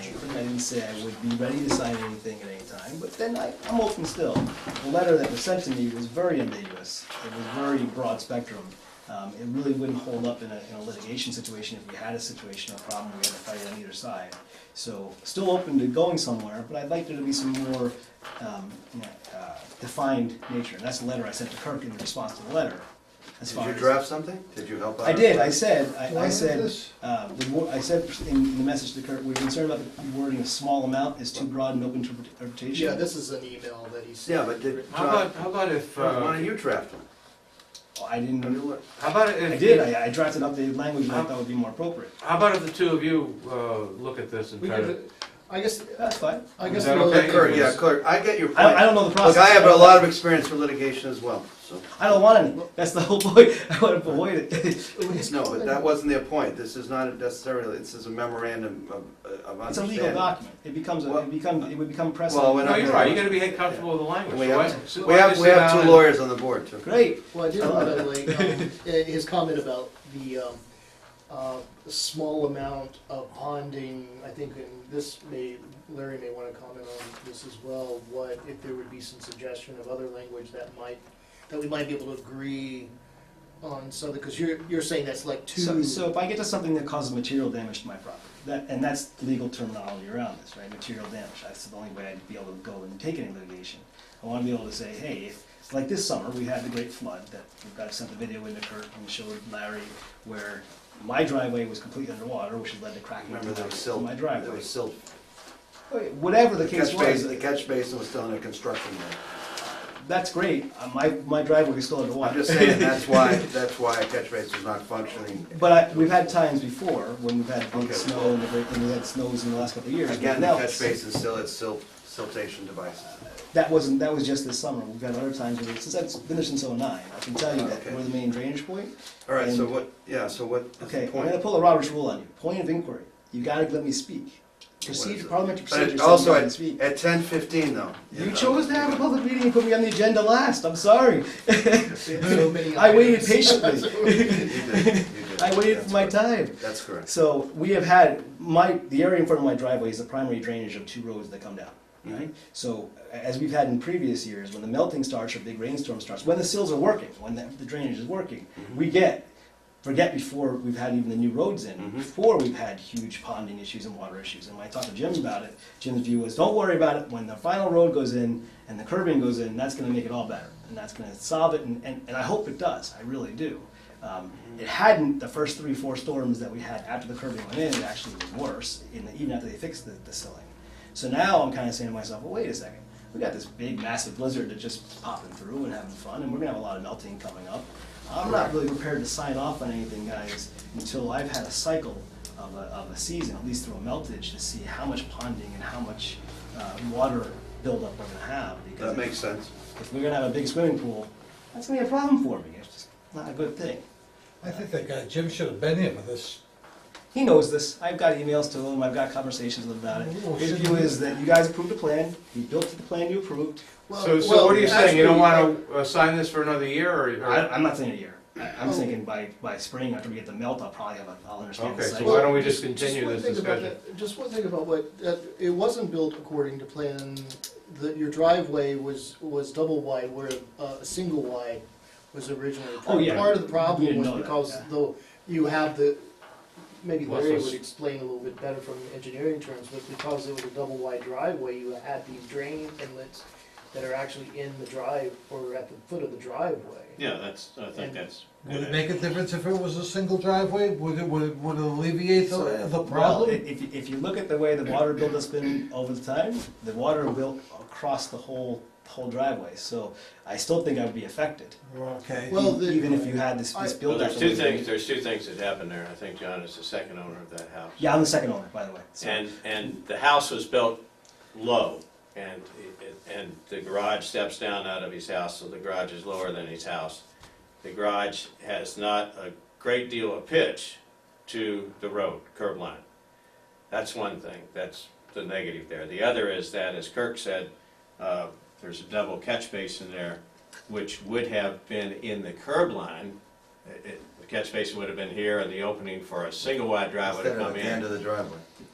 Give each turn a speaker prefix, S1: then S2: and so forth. S1: say I would be ready to sign anything at any time, but then I, I'm open still. The letter that was sent to me was very ambiguous, it was very broad spectrum. Um, it really wouldn't hold up in a, in a litigation situation if we had a situation or problem we had to fight on either side. So, still open to going somewhere, but I'd like there to be some more, um, you know, uh, defined nature. And that's the letter I sent to Kirk in response to the letter, as far
S2: Did you
S1: as-
S2: draft something? Did you help out?
S1: I did, I said, I, I
S3: have
S1: said,
S3: this?
S1: uh, the wo- I said in the message to Kurt, we're concerned about the wording a small amount is too broad and open to interpretation.
S3: Yeah, this is an email that he sent.
S2: Yeah, but did,
S4: How
S2: John, uh,
S4: about, how about if,
S2: why don't
S4: uh,
S2: you draft one?
S1: I didn't,
S2: Have you looked?
S4: how about
S1: I
S4: if?
S1: did, I I drafted updated language and I thought would be more appropriate.
S4: How about if the two of you, uh, look at this and
S3: We
S4: try to?
S3: could, I guess,
S1: That's fine.
S3: I
S4: Is
S3: guess.
S4: that
S3: we'll-
S4: okay?
S2: Clerk, yeah, clerk, I get your point.
S1: I, I don't know the process.
S2: Look, I have a lot of experience with litigation as well, so.
S1: I don't want any, that's the whole point, I want to avoid it.
S2: No, but that wasn't their point. This is not necessarily, this is a memorandum of, of understanding.
S1: It's a legal document, it becomes, a-
S2: Well-
S1: it become, it would become
S2: Well, we're
S1: precedent.
S4: No,
S2: not-
S4: you're right, you gotta be comfortable with the language.
S2: We
S4: So why-
S2: have,
S4: so
S2: we
S4: why don't
S2: have,
S4: you
S2: we
S4: sit
S2: have
S4: down
S2: two
S4: and-
S2: lawyers on the board, too.
S1: Great,
S3: Well, I did want to like, um, eh, his comment about the, um, uh, small amount of ponding, I think, and this may, Larry may want to comment on this as well, what, if there would be some suggestion of other language that might, that we might be able to agree on, so, because you're, you're saying that's like two.
S1: so, so if I get to something that causes material damage to my property, that, and that's the legal terminology around this, right, material damage, that's the only way I'd be able to go and take any litigation. I wanna be able to say, hey, if, like this summer, we had the great flood, that, we've got, sent the video in to Kurt and showed Larry where my driveway was completely underwater, which had led to cracking
S2: Remember, there was
S1: in
S2: silt,
S1: my
S2: there
S1: driveway.
S2: was silt.
S1: Whatever the
S2: The
S1: case
S2: catch basin,
S1: was,
S2: the catch basin was still under construction there.
S1: that's great, Uh, my, my driveway is still underwater.
S2: I'm just saying, that's why, that's why a catch basin is not functioning.
S1: But I, we've had times before when we've had big
S2: Okay.
S1: snow and the great, and we had snows in the last couple of years. but
S2: Again, the
S1: now
S2: catch
S1: it's-
S2: basin still has silt, siltation devices.
S1: That wasn't, that was just this summer, we've had other times, where- since that's been there since oh-nine, I can tell you that,
S2: Oh, Okay.
S1: we're the main drainage point.
S2: All right, so
S1: And-
S2: what, yeah, so what is
S1: Okay,
S2: the
S1: I'm gonna
S2: point?
S1: pull a Roberts rule on you, point of inquiry, you gotta let me speak.
S2: is
S1: Procedure,
S2: it?
S1: parliamentary
S2: But
S1: procedure
S2: it-
S1: says you
S2: also,
S1: gotta
S2: at
S1: speak.
S2: at ten fifteen though.
S1: You
S2: know.
S1: chose to have a public meeting and put me on the agenda last, I'm sorry.
S3: So many
S1: I waited
S3: items.
S1: patiently,
S2: You did, you did.
S1: I waited
S2: That's
S1: for my
S2: correct.
S1: time.
S2: That's correct.
S1: So we have had, my, the area in front of my driveway is the primary drainage of two roads that come down, right? So, as we've had in previous years, when the melting starts or big rainstorm starts, when the sills are working, when the the drainage is working, we get, forget before we've had even the new roads in,
S2: Mhm.
S1: before we've had huge ponding issues and water issues. And when I talked to Jim about it, Jim's view was, don't worry about it, when the final road goes in and the curbing goes in, that's gonna make it all better. And that's gonna solve it, and, and, and I hope it does, I really do. Um, It hadn't, the first three, four storms that we had after the curbing went in, it actually was worse, in the- even after they fixed the, the silling. So now I'm kind of saying to myself, well, wait a second. We got this big, massive blizzard that's just popping through and having fun, and we're gonna have a lot of melting coming up. I'm not really prepared to sign off on anything, guys, until I've had a cycle of a, of a season, at least through a meltage, to see how much ponding and how much uh, water buildup we're gonna have. Because
S2: That makes sense.
S1: if we're gonna have a big swimming pool, that's gonna be a problem for me. It's just not a good thing.
S5: I think that guy Jim should have been here for this.
S1: He knows this. I've got emails to him. I've got conversations with him about
S2: Oh,
S1: it. His view is that you guys approved a plan. He built to the plan you approved.
S3: Well-
S4: So, so
S3: well,
S4: what are you saying, you don't
S3: actually,
S4: wanna uh, sign this for another year, or? or-
S1: I, I'm not saying a year. I- I'm
S3: Oh.
S1: thinking by, by spring, after we get the melt, I'll probably have a, I'll understand the
S4: Okay, so
S1: cycle.
S4: why don't we
S3: Well,
S4: just
S3: Just
S4: continue
S3: one
S4: this
S3: thing about
S4: discussion?
S3: that- Just one thing about what, that, it wasn't built according to plan, that your driveway was, was double wide where uh, a single wide was originally.
S1: Oh, yeah.
S3: Part of the
S1: We
S3: problem
S1: didn't
S3: was
S1: know that,
S3: because
S1: yeah.
S3: though you have the, maybe
S4: Well,
S3: Larry
S4: so-
S3: would explain a little bit better from engineering terms, but because it was a double wide driveway, you had these drain inlets that are actually in the drive or at the foot of the driveway.
S6: Yeah, that's, I think that's.
S5: Would it make a difference if it was a single driveway? Would it, would it, would it alleviate the, the
S1: Well, i-
S5: problem?
S1: if, you- if you look at the way the water buildup's been over the time, the water built across the whole, whole driveway, so I still think I would be affected. e-,
S5: Okay.
S3: Well, the-
S1: Even if you had this, this
S3: I-
S6: Well,
S1: buildup.
S6: there's two things, there's two things that happened there, I think John is the second owner of that house.
S1: Yeah, I'm the second owner, by the way. so-
S6: And, and the house was built low, and, it- it- and the garage steps down out of his house, so the garage is lower than his house. The garage has not a great deal of pitch to the road, curb line. That's one thing, that's the negative there. The other is that, as Kirk said, uh, there's a double catch basin there, which would have been in the curb line. It- it- The catch basin would have been here, and the opening for a single wide driveway
S2: Instead of
S6: to
S2: at
S6: come
S2: the end
S6: in
S2: of the driveway.